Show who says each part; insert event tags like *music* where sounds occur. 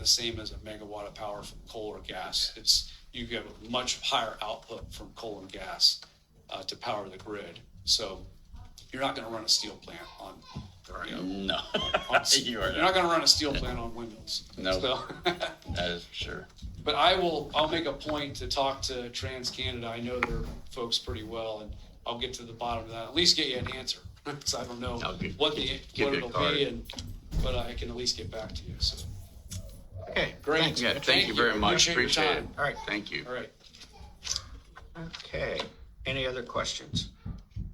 Speaker 1: the same as a megawatt of power from coal or gas. It's, you get a much higher output from coal and gas uh, to power the grid. So you're not going to run a steel plant on, you
Speaker 2: *laughs*
Speaker 1: know,
Speaker 2: No,
Speaker 1: on-
Speaker 2: you are
Speaker 1: you're not
Speaker 2: not.
Speaker 1: going to run a steel plant on windmills.
Speaker 2: No.
Speaker 1: So- *laughs*
Speaker 2: That is for sure.
Speaker 1: But I will, I'll make a point to talk to TransCanada. I know their folks pretty well and I'll get to the bottom of that, at least get you an answer. *laughs* Cause I don't know
Speaker 2: I'll get-
Speaker 1: what the,
Speaker 2: get
Speaker 1: what
Speaker 2: you a
Speaker 1: it'll
Speaker 2: card.
Speaker 1: be and, but I can at least get back to you, so.
Speaker 3: Okay,
Speaker 1: Great.
Speaker 3: great.
Speaker 2: Yeah, thank you very much.
Speaker 1: Appreciate your
Speaker 2: Appreciate it.
Speaker 1: time.
Speaker 3: All right.
Speaker 2: Thank you.
Speaker 1: All right.
Speaker 3: Okay, any other questions?